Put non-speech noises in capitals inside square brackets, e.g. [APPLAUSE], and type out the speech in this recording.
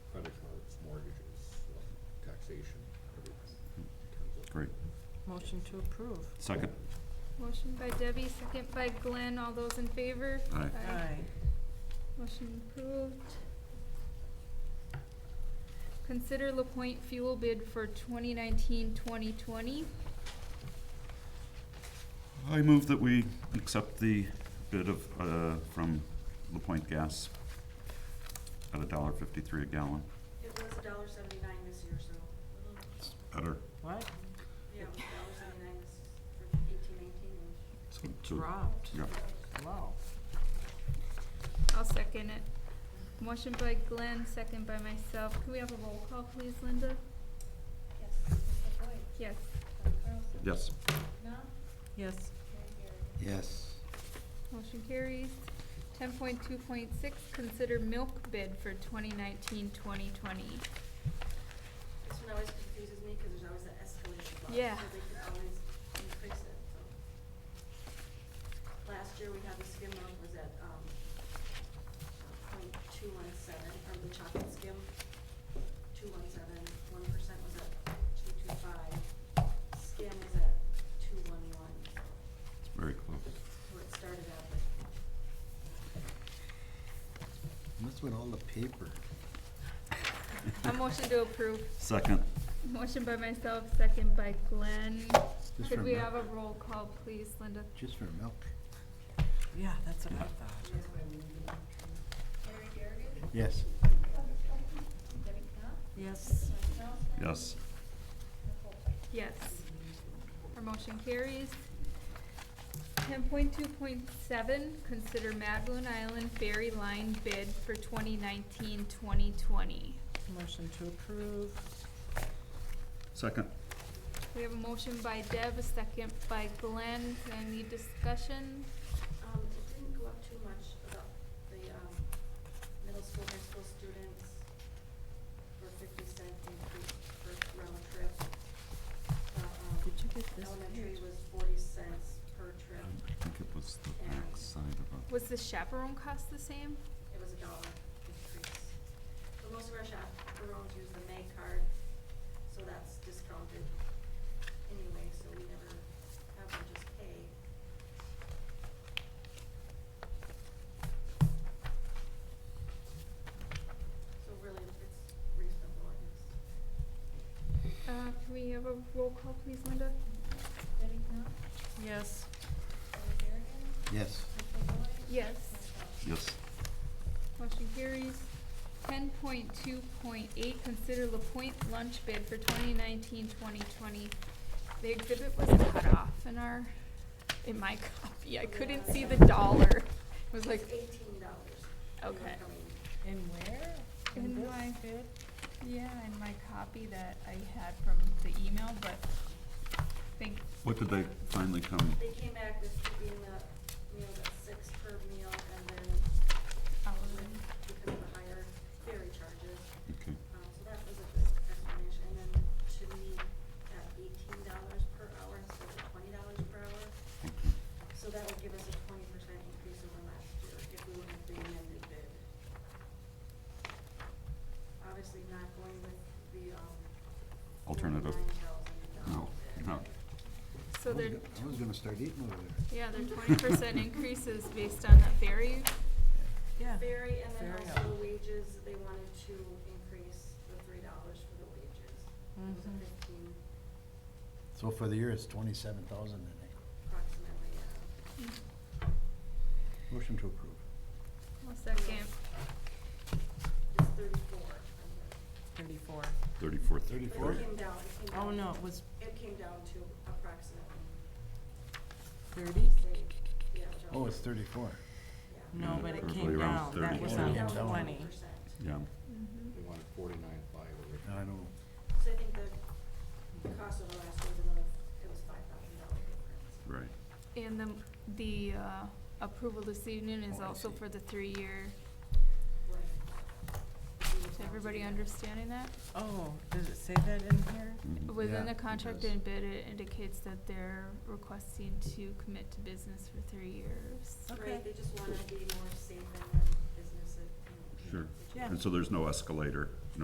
Motion to approve. Second. Motion by Debbie, second by Glenn. All those in favor? Aye. Motion approved. Consider LaPointe fuel bid for 2019-2020. I move that we accept the bid of, uh, from LaPointe Gas at a dollar fifty-three a gallon. It was a dollar seventy-nine this year, so, It's better. What? yeah, it was a dollar seventy-nine this, for eighteen nineteen. So- so- Dropped. Yeah, Wow. I'll second it. Motion by Glenn, second by myself. Can we have a roll call, please, Linda? Yes, Mr. Boyd, Yes. Dr. Carlson. yes. No? Yes. Yes. Motion carries. Ten point two point six, consider milk bid for 2019-2020. This one always confuses me, cause there's always that escalation clause, Yeah. so they can always increase it, so. Last year, we had the skim milk was at, um, point two one seven, or the chocolate skim, two one seven, one percent was at two two five, skim was at two one one, so. It's very close. where it started out, but Must win all the paper. A motion to approve. Second. Motion by myself, second by Glenn. Just Could for we milk. have a roll call, please, Linda? Just for milk. Yeah, that's what I Yeah. thought. Yes. Yes. Yes. Yes. Our motion carries. Ten point two point seven, consider Magloon Island Ferry Line bid for 2019-2020. Motion to approve. Second. We have a motion by Deb, a second by Glenn. Any discussion? Um, it didn't go up too much about the, um, middle school, high school students for fifty cent increase for round trip. The, um, Did you get this elementary page? was forty cents per I trip, think it was the back side of Was the chaperone cost the same? it was a dollar increase. But most of our chaperones use the May card, so that's discounted anyway, so we never have them just pay. So really, it's reasonable, I guess. Uh, can we have a roll call, please, Linda? Yes. Yes. Yes. a, yes. Motion carries. Ten point two point eight, consider LaPointe lunch bid for 2019-2020. The exhibit was cut off in our, in my [LAUGHS] copy. I couldn't see the dollar. It was like, It's eighteen dollars. Okay. And where? In this my- bid? yeah, in my copy that I had from the email, but I think What did they finally come? They came back with being the meal that's six per meal and then I with, was, because of the higher ferry charges, Okay. Um, so that was a good explanation, and then to me, at eighteen dollars per hour instead of twenty dollars per hour. Okay. So that would give us a twenty percent increase over last year if we would have the amended bid. Obviously not going with the, um. Alternative. $9,000 No, bid. no. so I was they're, go- I was gonna start eating over there. yeah, they're twenty percent increases based on that ferry. Yeah. Ferry, and then Ferry also up. wages, they wanted to increase the three dollars for the wages. It was a Mhm. fifteen So for the year, it's twenty-seven thousand, I think. approximately, uh, yeah. Motion to approve. One second. It's thirty-four. I'm Thirty-four. Thirty-four, sorry. thirty-four. But it came down, it came down. Oh, no, it was It came down to approximately, thirty? say, yeah. which I Oh, was- it's thirty-four. yeah. No, Yeah, but it probably came around down. That 30. was It Yeah. came on down to Yeah. twenty. 20%. Yeah. Mhm. They wanted forty-nine five I originally. don't know. So I think the cost of the last was another, it was five thousand dollar difference. Right. And the, the uh, approval this evening is Oh, I also see. for the three-year. Right. We were Is down to everybody the- understanding that? Oh, does it say that in here? Mhm. Within Yeah, the it contract does. and bid, it indicates that they're requesting to commit to business for three years. Okay. Right, they just wanna be more safe in their business, uh, you know, Mm-hmm. Sure. situation. Yeah. And so there's no escalator